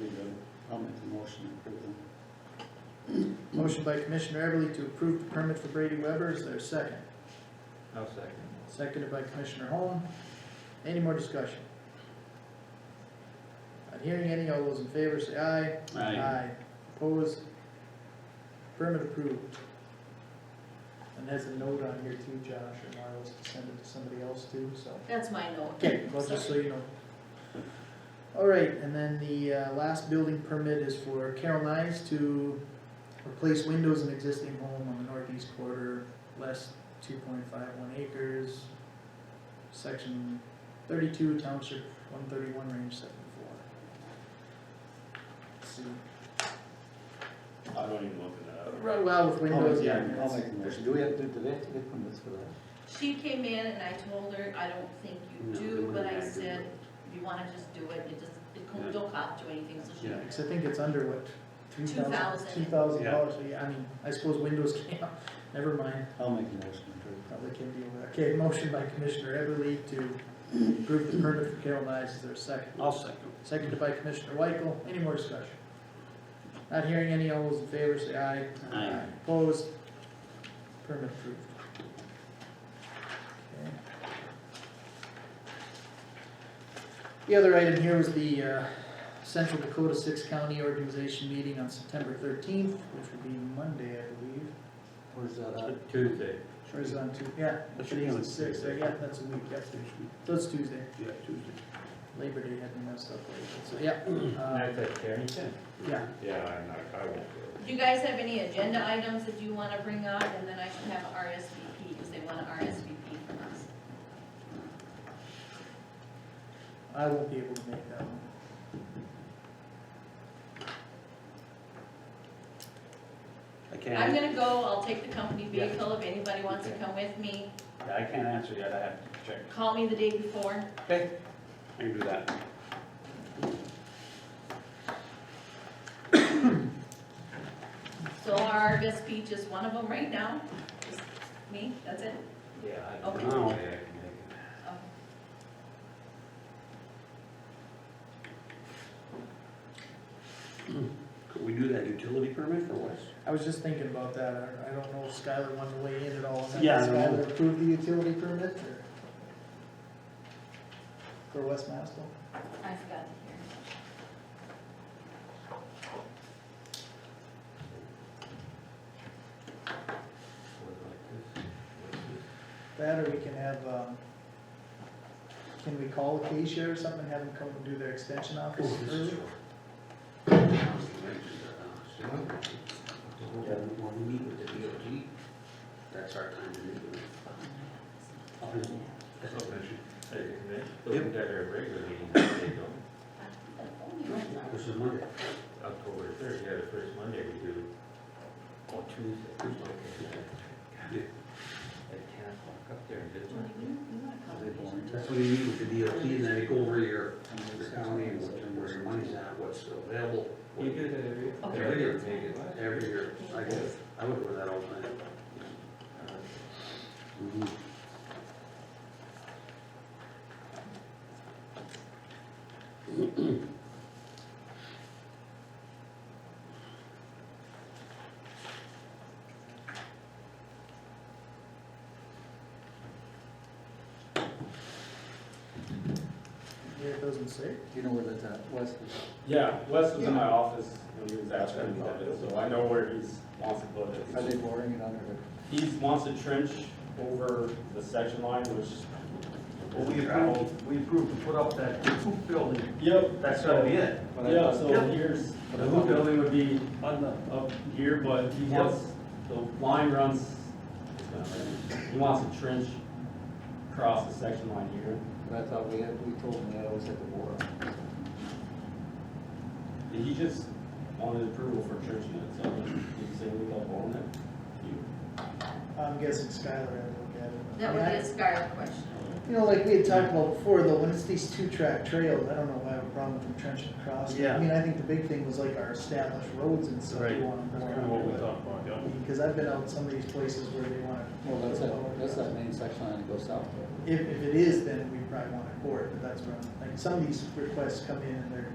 we do. I'll make the motion to approve them. Motion by Commissioner Everly to approve the permit for Brady Weber, is there a second? I'll second. Seconded by Commissioner Holm. Any more discussion? Not hearing any, all those in favor say aye. Opposed? Permit approved. And has a note on here too, Josh, or Marlo's to send it to somebody else too, so. That's my note. Okay, well, just so you know. All right, and then the uh, last building permit is for Carol Knives to replace windows in existing home on the northeast quarter, less two point five one acres, section thirty-two, township one thirty-one, range seven four. See, I don't even look it up. right, well, with windows, I'll Oh, yeah. make the- I'll make the it's- motion. Do we have, to do they have to get permits for that? She came in and I told her, I don't think No, you they do, but wouldn't I have to. said, you wanna just do it, it just, it co- Yeah. don't cost you anything, so she, Yeah. Cause I think it's under what, two thousand, 2,000. two thousand Yeah. dollars, so yeah, I mean, I suppose windows can't, never mind. I'll make the motion to approve. Probably can deal with that. Okay, motion by Commissioner Everly to approve the permit for Carol Knives, is there a second? I'll second. Seconded by Commissioner Weichel, any more discussion? Not hearing any, all those in favor say aye. Aye. Opposed? Permit approved. Okay. The other item here was the, uh, Central Dakota Six County Organization meeting on September thirteenth, which would be Monday, I believe. Where's that at? Uh, Tuesday. Or is it on two, yeah, That should be today's on the sixth, Tuesday. yeah, that's a week, yep. So it's Tuesday, Yeah, Tuesday. Labor Day had me messed up lately, so, yeah. uh, That's at Carrington? Yeah, Yeah, I'm not, I won't go. do you guys have any agenda items that you wanna bring up, and then I should have a RSVP, cause they want an RSVP from us. I won't be able to make that one. I I'm can't, gonna go, I'll take the company Yeah. vehicle, if anybody wants to Okay. come with me, I can't answer yet, I have to check. call me the day before, Okay. I can do that. so our RSVP just one of them right now, just me, that's it. Yeah. I don't Okay. know. Oh. Could we do that utility permit for West? I was just thinking about that, I, I don't know if Skylar wanted to weigh in at all, on that. Yeah, I Does don't know. Skylar approve the utility permit, or? For West Masto? I forgot to hear. That, or we can have, um, can we call Acacia or something, have them come and do their extension office Oh, early? When we meet with the DOT, that's our time to meet with them. Yep. This is Monday. October third, yeah, the first Monday we do, Oh, Tuesday. okay, at ten o'clock up there, isn't it? Are they born? That's when you meet with the DOT, and then you go over your, your county, and what, where your money's at, what's available. You do that every, Okay. every year, make it last. Every year, I go, I would do that all the time. Yeah, it doesn't say. Do you know where that's at? West is? Yeah, Wes was in my office when he was That's out there, been about it. so I know where he's, wants to put Are they it. boring it under the? He wants to trench over the section line, which is gravel. we approved to put up that hoop building, Yep, it. Yeah, so Yep. here's, But I the thought- hoop building would be on the, up here, but he Yep. wants, the line runs, it's not right. he wants to trench across the section line here. But I thought we had, we told them that was at the war. And He just wanted approval for trenching it, so he said we got on it. You- I'm guessing Skylar had to look at it. That would be a Skylar question. You know, like we had talked about before, though, when it's these two-track trails, I don't know why I have a problem with them trenching across. Yeah. I mean, I think the big thing was like our established roads and stuff they Right. want to go That's kind of what we on. talked about, yeah. Because I've been out in some of these places where they want to. Well, that's that, that's that main section line that goes south there. If, if it is, then we probably want to court, but that's where, I'm- like, some of these requests come in and they're